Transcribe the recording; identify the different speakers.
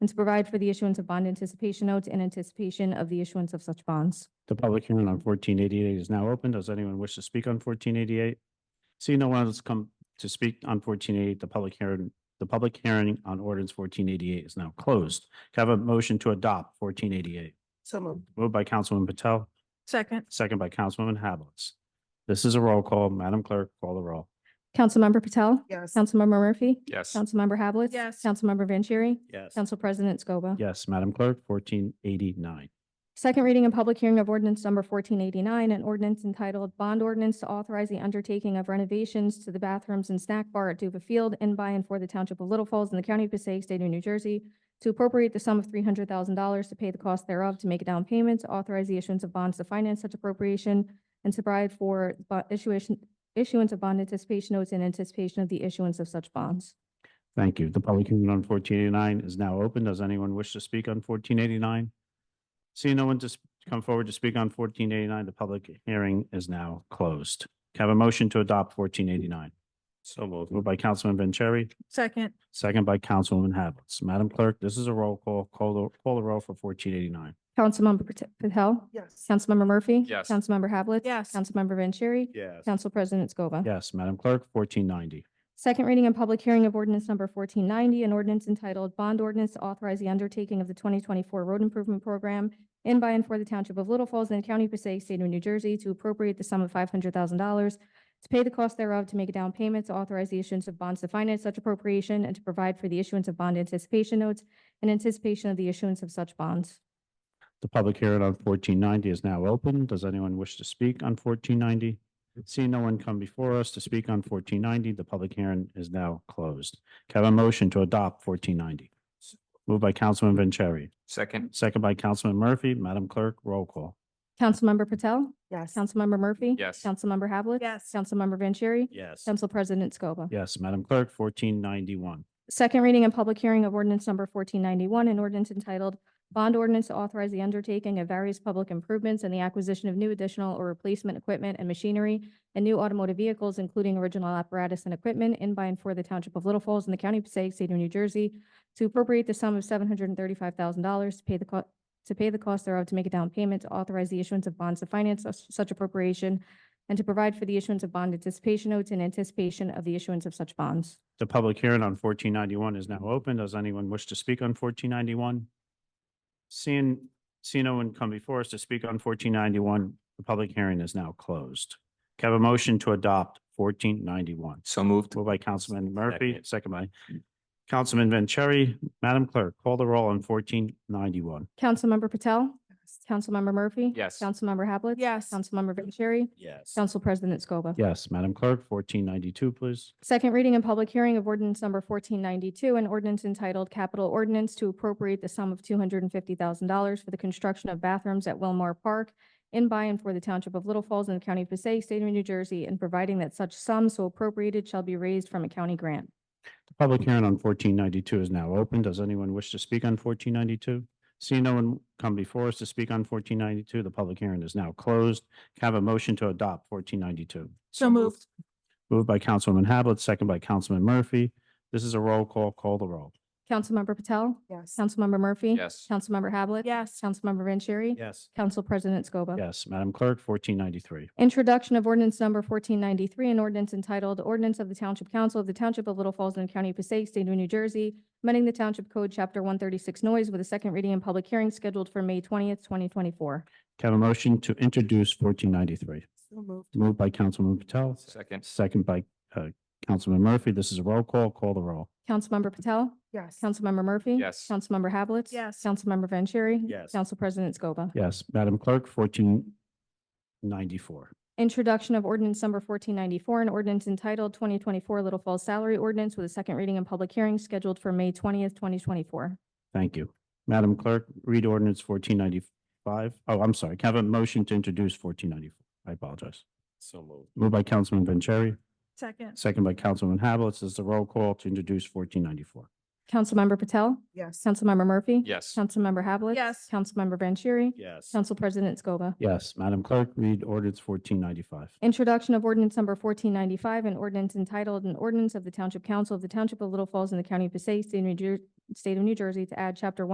Speaker 1: and to provide for the issuance of bond anticipation notes in anticipation of the issuance of such bonds.
Speaker 2: The public hearing on fourteen eighty-eight is now open. Does anyone wish to speak on fourteen eighty-eight? Seeing no one else come to speak on fourteen eighty-eight, the public hearing, the public hearing on ordinance fourteen eighty-eight is now closed. Can I Have a motion to adopt fourteen eighty-eight.
Speaker 3: So moved.
Speaker 2: Moved by Councilwoman Patel,
Speaker 3: Second.
Speaker 2: second by Councilwoman Havelitz. This is a roll call. Madam Clerk, call the roll.
Speaker 1: Councilmember Patel?
Speaker 3: Yes.
Speaker 1: Councilmember Murphy?
Speaker 4: Yes.
Speaker 1: Councilmember Havelitz?
Speaker 3: Yes.
Speaker 1: Councilmember Vanchery?
Speaker 4: Yes.
Speaker 1: Council President Scoba?
Speaker 2: Yes, Madam Clerk, fourteen eighty-nine.
Speaker 1: Second reading and public hearing of ordinance number fourteen eighty-nine, an ordinance entitled Bond Ordinance to Authorize the Undertaking of Renovations to the Bathrooms and Snack Bar at Duba Field in by and for the Township of Little Falls in the County of Passaic, State of New Jersey, to appropriate the sum of three hundred thousand dollars to pay the cost thereof, to make a down payment, to authorize the issuance of bonds to finance such appropriation, and to provide for bo- issuation, issuance of bond anticipation notes in anticipation of the issuance of such bonds.
Speaker 2: Thank you. The public hearing on fourteen eighty-nine is now open. Does anyone wish to speak on fourteen eighty-nine? Seeing no one to s- come forward to speak on fourteen eighty-nine, the public hearing is now closed. Can I Have a motion to adopt fourteen eighty-nine.
Speaker 4: So moved.
Speaker 2: Moved by Councilman Vanchery,
Speaker 3: Second.
Speaker 2: second by Councilwoman Havelitz. Madam Clerk, this is a roll call. Call the, call the roll for fourteen eighty-nine.
Speaker 1: Councilmember Pat- Patel?
Speaker 3: Yes.
Speaker 1: Councilmember Murphy?
Speaker 4: Yes.
Speaker 1: Councilmember Havelitz?
Speaker 3: Yes.
Speaker 1: Councilmember Vanchery?
Speaker 4: Yes.
Speaker 1: Council President Scoba.
Speaker 2: Yes, Madam Clerk, fourteen ninety.
Speaker 1: Second reading and public hearing of ordinance number fourteen ninety, an ordinance entitled Bond Ordinance to Authorize the Undertaking of the Twenty Twenty-Four Road Improvement Program in by and for the Township of Little Falls and the County of Passaic, State of New Jersey, to appropriate the sum of five hundred thousand dollars to pay the cost thereof, to make a down payment, to authorize the issuance of bonds to finance such appropriation, and to provide for the issuance of bond anticipation notes in anticipation of the issuance of such bonds.
Speaker 2: The public hearing on fourteen ninety is now open. Does anyone wish to speak on fourteen ninety? Seeing no one come before us to speak on fourteen ninety, the public hearing is now closed. Can I Have a motion to adopt fourteen ninety. Moved by Councilman Vanchery,
Speaker 4: Second.
Speaker 2: second by Councilman Murphy. Madam Clerk, roll call.
Speaker 1: Councilmember Patel?
Speaker 3: Yes.
Speaker 1: Councilmember Murphy?
Speaker 4: Yes.
Speaker 1: Councilmember Havlet?
Speaker 3: Yes.
Speaker 1: Councilmember Vanchery?
Speaker 4: Yes.
Speaker 1: Council President Scoba.
Speaker 2: Yes, Madam Clerk, fourteen ninety-one.
Speaker 1: Second reading and public hearing of ordinance number fourteen ninety-one, an ordinance entitled Bond Ordinance to Authorize the Undertaking of Various Public Improvements and the Acquisition of New Additional or Replacement Equipment and Machinery and New Automotive Vehicles, including original apparatus and equipment in by and for the Township of Little Falls in the County of Passaic, State of New Jersey, to appropriate the sum of seven hundred and thirty-five thousand dollars to pay the co- to pay the cost thereof, to make a down payment, to authorize the issuance of bonds to finance such- such appropriation, and to provide for the issuance of bond anticipation notes in anticipation of the issuance of such bonds.
Speaker 2: The public hearing on fourteen ninety-one is now open. Does anyone wish to speak on fourteen ninety-one? Seeing, seeing no one come before us to speak on fourteen ninety-one, the public hearing is now closed. Can I Have a motion to adopt fourteen ninety-one.
Speaker 4: So moved.
Speaker 2: Moved by Councilman Murphy,
Speaker 4: Second.
Speaker 2: second by Councilman Vanchery. Madam Clerk, call the roll on fourteen ninety-one.
Speaker 1: Councilmember Patel? Councilmember Murphy?
Speaker 4: Yes.
Speaker 1: Councilmember Hablitz,
Speaker 3: Yes.
Speaker 1: Councilmember Vanchery?
Speaker 4: Yes.
Speaker 1: Council President Scoba.
Speaker 2: Yes, Madam Clerk, fourteen ninety-two, please.
Speaker 1: Second reading and public hearing of ordinance number fourteen ninety-two, an ordinance entitled Capital Ordinance to appropriate the sum of two hundred and fifty thousand dollars for the construction of bathrooms at Wilmar Park in by and for the Township of Little Falls and the County of Passaic, State of New Jersey, and providing that such sum so appropriated shall be raised from a county grant.
Speaker 2: The Public hearing on fourteen ninety-two is now open. Does anyone wish to speak on fourteen ninety-two? Seeing no one come before us to speak on fourteen ninety-two, the public hearing is now closed. Can I Have a motion to adopt fourteen ninety-two.
Speaker 3: So moved.
Speaker 2: Moved by Councilwoman Hablitz, second by Councilman Murphy. This is a roll call. Call the roll.
Speaker 1: Councilmember Patel?
Speaker 3: Yes.
Speaker 1: Councilmember Murphy?
Speaker 4: Yes.
Speaker 1: Councilmember Hablitz,
Speaker 3: Yes.
Speaker 1: Councilmember Vanchery?
Speaker 2: Yes.
Speaker 1: Council President Scoba.
Speaker 2: Yes, Madam Clerk, fourteen ninety-three.
Speaker 1: Introduction of ordinance number fourteen ninety-three, an ordinance entitled Ordinance of the Township Council of the Township of Little Falls and County of Passaic, State of New Jersey, amending the Township Code, Chapter one thirty-six noise with a second reading and public hearing scheduled for May twentieth, twenty twenty-four.
Speaker 2: Can I Have a motion to introduce fourteen ninety-three.
Speaker 3: So moved.
Speaker 2: Moved by Councilman Patel,
Speaker 4: Second.
Speaker 2: second by uh, Councilman Murphy. This is a roll call. Call the roll.
Speaker 1: Councilmember Patel?
Speaker 3: Yes.
Speaker 1: Councilmember Murphy?
Speaker 4: Yes.
Speaker 1: Councilmember Hablitz,
Speaker 3: Yes.
Speaker 1: Councilmember Vanchery?
Speaker 4: Yes.
Speaker 1: Council President Scoba.
Speaker 2: Yes, Madam Clerk, fourteen ninety-four.
Speaker 1: Introduction of ordinance number fourteen ninety-four, an ordinance entitled Twenty Twenty-four Little Falls Salary Ordinance with a second reading and public hearing scheduled for May twentieth, twenty twenty-four.
Speaker 2: Thank you. Madam Clerk, read ordinance fourteen ninety-five. Oh, I'm sorry. Can I Have a motion to introduce fourteen ninety-four. I apologize.
Speaker 4: So moved.
Speaker 2: Moved by Councilman Vanchery,
Speaker 3: Second.
Speaker 2: second by Councilman Havelitz. This is the roll call to introduce fourteen ninety-four.
Speaker 1: Councilmember Patel,
Speaker 3: Yes.
Speaker 1: Councilmember Murphy.
Speaker 4: Yes.
Speaker 1: Councilmember Havlet.
Speaker 3: Yes.
Speaker 1: Councilmember Vanchery.
Speaker 2: Yes.
Speaker 1: Council President Scoba.
Speaker 2: Yes, Madam Clerk, read ordinance fourteen ninety-five.
Speaker 1: Introduction of ordinance number fourteen ninety-five, an ordinance entitled an ordinance of the Township Council of the Township of Little Falls in the County of Passaic, State of New Jer- State of New Jersey to add chapter one